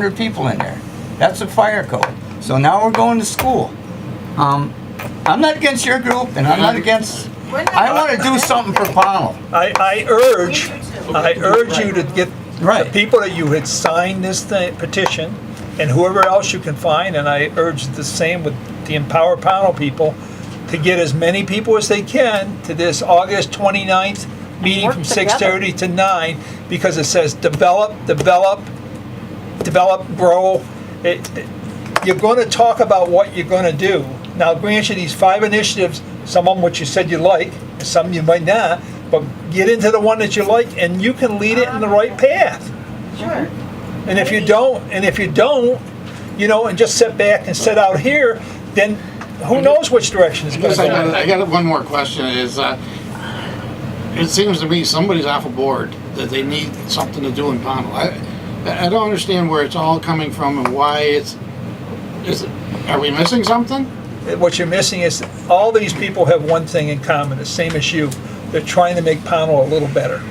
hundred people in there. That's a fire code. So now we're going to school. Um, I'm not against your group, and I'm not against, I want to do something for Pownell. I, I urge, I urge you to get the Right. people that you had signed this thi- petition and whoever else you can find, and I urge the same with the Empower Panel people, to get as many people as they can to this August 29th meeting Work from together. 6:30 to 9, because it says develop, develop, develop, grow. It, it- you're gonna talk about what you're gonna do. Now, granted, these five initiatives, some of them which you said you like, and some you might not, but get into the one that you like and you can lead it in the right path. Sure. And if you don't, and if you don't, you know, and just sit back and sit out here, then who knows which direction it's Yes, I got, gonna I got one more question, is, uh, it seems to me somebody's off a board, that they need something to do in Pownell. I, I don't understand where it's all coming from and why it's, is, it- are we missing something? go. What you're missing is, all these people have one thing in common, the same as you. They're trying to make Pownell a little better.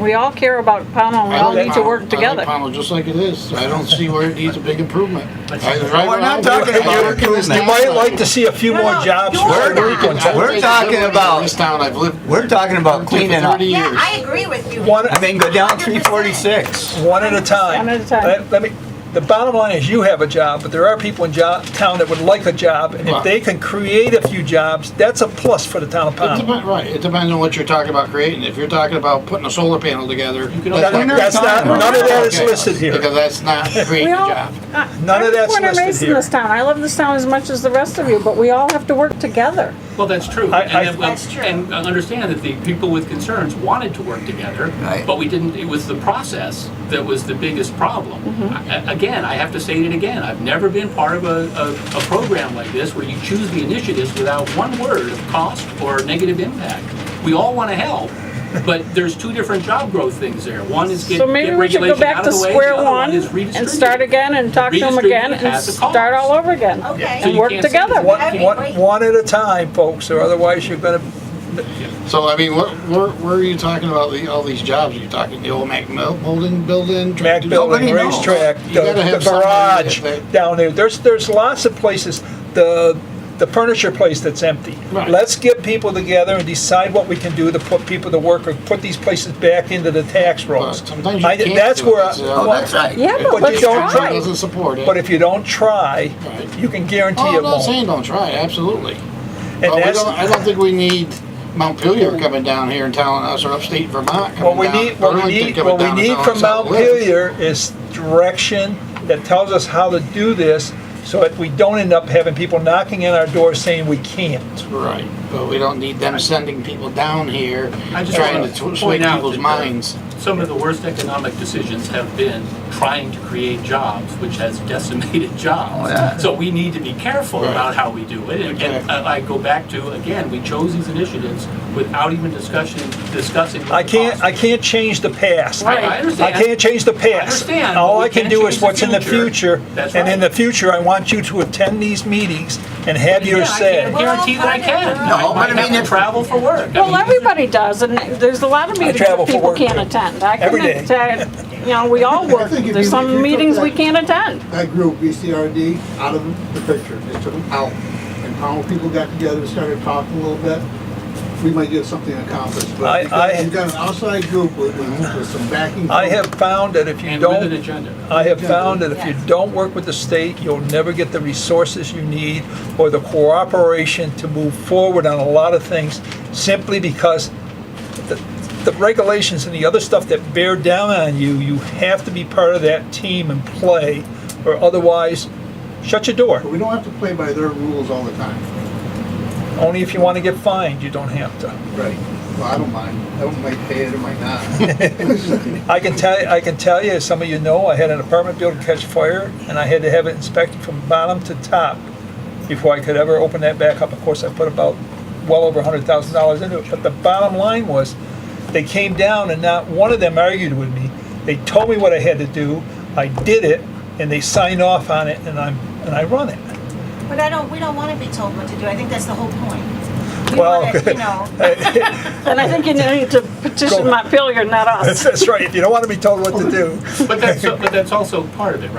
We all care about Pownell, and we I all like need to Pownell. work together. I like Pownell just like it is, I don't see where it needs a big improvement. I- right We're not around- talking I about work in this improvement. You town. might like to see a few No, more no, jobs. you're for not. everyone. I've We're lived talking in about- This town, I've lived. We're talking I've about lived here for cleaning up. 30 Yeah, years. I agree with you. One- I mean, go down three forty-six. One at a time. One at a time. Let- Let me, the bottom line is you have a job, but there are people in job, town that would like a job, and if Right. they can create a few jobs, that's a plus for the town of It Pownell. depends, right, it depends on what you're talking about creating. If you're talking about putting a solar panel together. That- not- That's not, We're none of that is Okay, listed here. Because that's not creating We a all, uh, job. I- None of that's everyone I'm listed raised in here. this town. I love this town as much as the rest of you, but we all have to work together. Well, that's true. I- And I- then- well, That's true. And I understand that the people with concerns wanted to work together, Right. but we didn't, it was the process that was the biggest problem. Mm-hmm. A- a- Again, I have to say it again, I've never been part of a, a, a program like this where you choose the initiatives without one word of cost or negative impact. We all want to help, but there's two different job growth things there. One is get So maybe get we should go regulation back out to of the way, the square other one one is and start redistribute. again and talk to them Redistribute again and as a cost. start all over again. Okay. So And you work can't say together. that- One, Okay, one, wait. one at a time, folks, or otherwise you're gonna, So I mean, what, where, where are you talking about the, all these jobs? Are you talking the old Mac Mil- Bolden building? Mac building, Nobody knows. racetrack, You the gotta the have somebody barrage that- that- down there. There's, there's lots of places, the, the furniture place that's empty. Right. Let's get people together and decide what we can do to put people to work or put these places back into the tax rolls. Sometimes you I- can't That's do it, where, I- so- Oh, that's right. Yeah, But but you let's don't Council try. try. Doesn't support it. But if you don't try, Right. you can guarantee Oh, it I'm not won't. saying don't try, absolutely. And But we that's- don't, I don't think we need Montpelier coming down here and telling us, or upstate Vermont What coming we down. need, what we Burlington need, coming what we down and need telling from us how to live. Montpelier is direction that tells us how to do this so that we don't end up having people knocking on our door saying we can't. Right, but we don't need them sending people down here, I just trying wanna to tw- point sway out people's that the- minds. Some of the worst economic decisions have been trying to create jobs, which has decimated Oh, yeah. jobs. So we need to be careful Right. about how we do it. And- And Exactly. I I go back to, again, we chose these initiatives without even discussion, discussing. what I the can't, cost I can't change the past. Right, I I understand. can't change the I past. understand, but All we I can can do is change the what's in the future. future. That's And in the right. future, I want you to attend these meetings and have Yeah, your I say. can't guarantee that I can. No, might but I mean, have if- to travel for work. I mean, Well, these are- everybody does, and there's a lot of meetings travel that for people work, can't too. attend. I Every can day. attend, you know, we all work. think if There's you- if some you meetings took we that- can't attend. that group, BCRD, out of the picture, just took them out. And how people got together and started talking a little bit, we might get something accomplished. I- But I- because you've got an outside group with, with with some backing. I have found that if you And with an don't, agenda. I have found that if you Yes. don't work with the state, you'll never get the resources you need or the cooperation to move forward on a lot of things simply because the, the regulations and the other stuff that bear down on you, you have to be part of that team and play or otherwise shut your door. But we don't have to play by their rules all the time. Only if you want to get fined, you don't have to. Right. Well, I don't mind. I don't might pay it or might not. I can tell, you- I can tell you, as some of you know, I had an apartment building catch fire, and I had to have it inspected from bottom to top before I could ever open that back up. Of course, I put about well over hundred thousand dollars into it, but the bottom line was, they came down and not one of them argued with me. They told me what I had to do, I did it, and they signed off on it, and I'm, and I run it. But I don't, we don't want to be told what to do. I think that's the whole point. We Well, want to, you know, And I think you need to petition Go. Montpelier, not us. That's right, if you don't want to be told what to do. But that's, but that's also part of it, right?